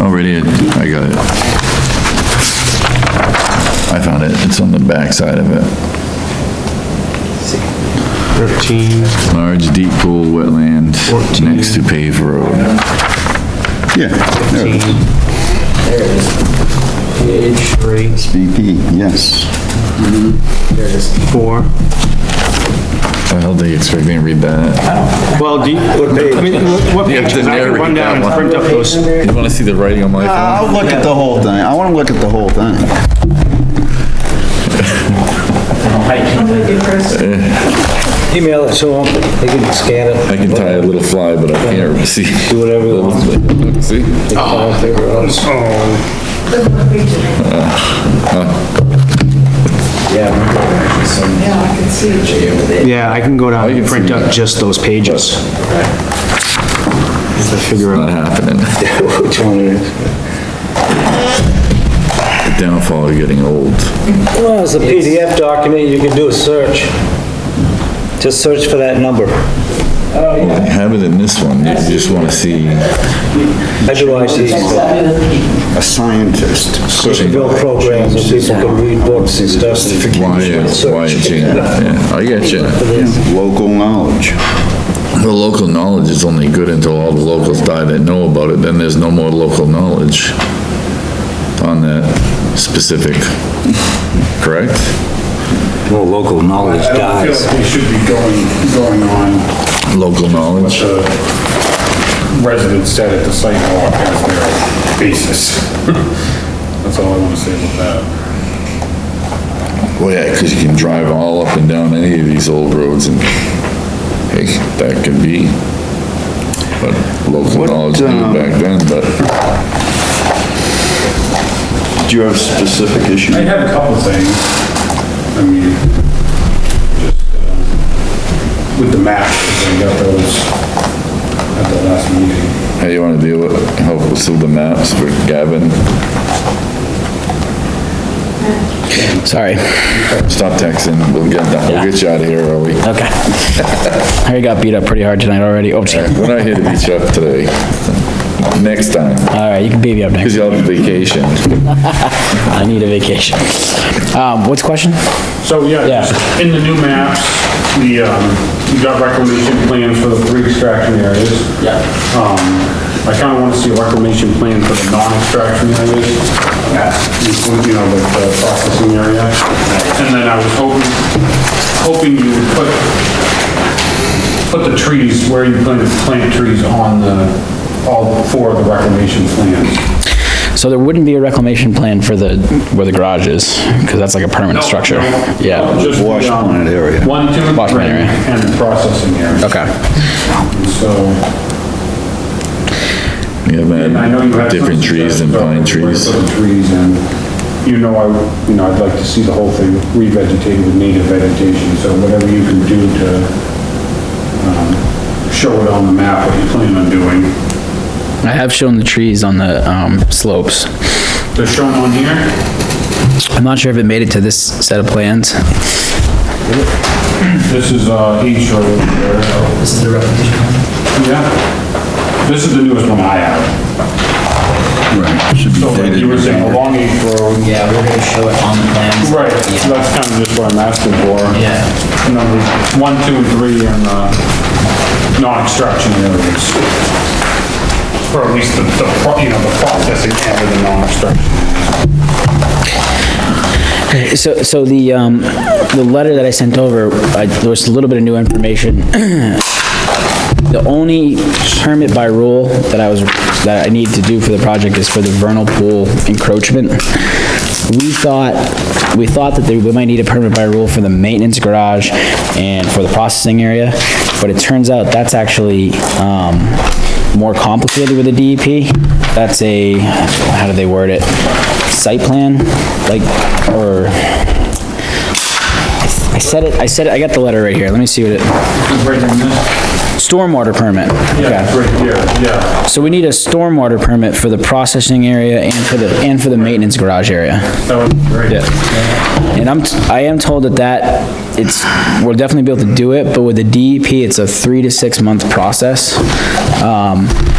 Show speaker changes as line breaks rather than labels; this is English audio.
Oh, right here, I got it. I found it, it's on the back side of it.
13,
Large deep pool wetland
Fourteen.
next to paved road.
Yeah, there it
15.
is.
There it is. Page
three,
BP, yes.
There it is.
four.
I don't think expect me to read that.
Well, do you, I mean, what- what
You have to
pages? I can
narrate
run
that
down and
one.
print up those.
You wanna see the writing on my
Uh, I'll look at the whole thing. I wanna look at the whole thing.
Email it to them, they can scan it.
I can tie a little fly, but I can't see.
Do whatever you
want. See?
They can all figure it out.
Oh,
Yeah. Some-
Yeah, I can see it.
Yeah, I can go down and
can
print
see
up
that.
just those pages. Just to figure out.
Not happening.
Which one it is?
The downfall of getting old.
Well, it's a PDF document, you can do a search. Just search for that number.
Well, they Have it in this one, you just wanna see.
I do like these
A scientist.
build programs where people can read books and stuff.
Why, it- why it changed, yeah, I get you.
Local knowledge.
The local knowledge is only good until all the locals die that know about it, then there's no more local knowledge on that specific, correct?
Well, local knowledge
I don't feel like we should be going, going on
Local knowledge,
the residents said at the site walk as their basis. That's all I wanna say about that.
well, yeah, cause you can drive all up and down any of these old roads and, hey, that could be. But local knowledge knew
um,
back then, but
Do you have specific issues?
I have a couple of things, I mean, just, um, with the map, I got those at the last meeting.
how you wanna deal with, help with some of the maps for Gavin?
Sorry.
Stop texting, we'll get, we'll get you out of here early.
Okay. I got beat up pretty hard tonight already. Oh, sorry.
We're not here to beat you up today. Next time.
All right, you can beat me up next.
Because you're on vacation.
I need a vacation. Um, what's the question?
So, yeah,
Yeah.
just in the new maps, the, um, you got reclamation plans for the three extraction areas. Yeah. Um, I kinda wanna see a reclamation plan for the non-extraction areas. Yeah. You know, the the processing area. And then I was hoping, hoping you would put, put the trees where you plan to plant trees on the, all four of the reclamation plans.
So there wouldn't be a reclamation plan for the, where the garage is, because that's like a permanent structure.
No, no,
Yeah.
just the,
Wash
um,
plant area.
One, two,
Wash
three,
plant area.
and the processing area.
Okay.
So,
You have
And I know you
had
have.
different trees than pine trees.
Trees and, you know, I, you know, I'd like to see the whole thing revegetated with native vegetation, so whatever you can do to, um, show it on the map what you plan on doing.
I have shown the trees on the, um, slopes.
They're shown on here,
I'm not sure if it made it to this set of plans.
this is, uh, each row over there. This is the repetition Yeah, this is the newest one I have.
Right, should be
So like
dated
you were saying,
November.
along H Road.
Yeah, we're gonna show it on the plans.
Right, so that's kind of just what I'm asking for.
Yeah.
Numbers one, two, and three in uh, non-extraction areas. Or at least the, the pro- you know, the processing end of the non-extraction.
So, so the, um, the letter that I sent over, I, there was a little bit of new information. The only permit by rule that I was, that I need to do for the project is for the vernal pool encroachment. We thought, we thought that there- we might need a permit by rule for the maintenance garage and for the processing area, but it turns out that's actually, um, more complicated with the DEP. That's a, how do they word it? Site plan, like, or, I said it, I said it, I got the letter right here, let me see what it,
Right in this?
stormwater permit.
Yeah, it's right here, yeah.
So we need a stormwater permit for the processing area and for the, and for the maintenance garage area.
That would be great.
And I'm, t- I am told that that, it's, we'll E definitely be able to do it, but with the DEP, it's a three to six month process. Um,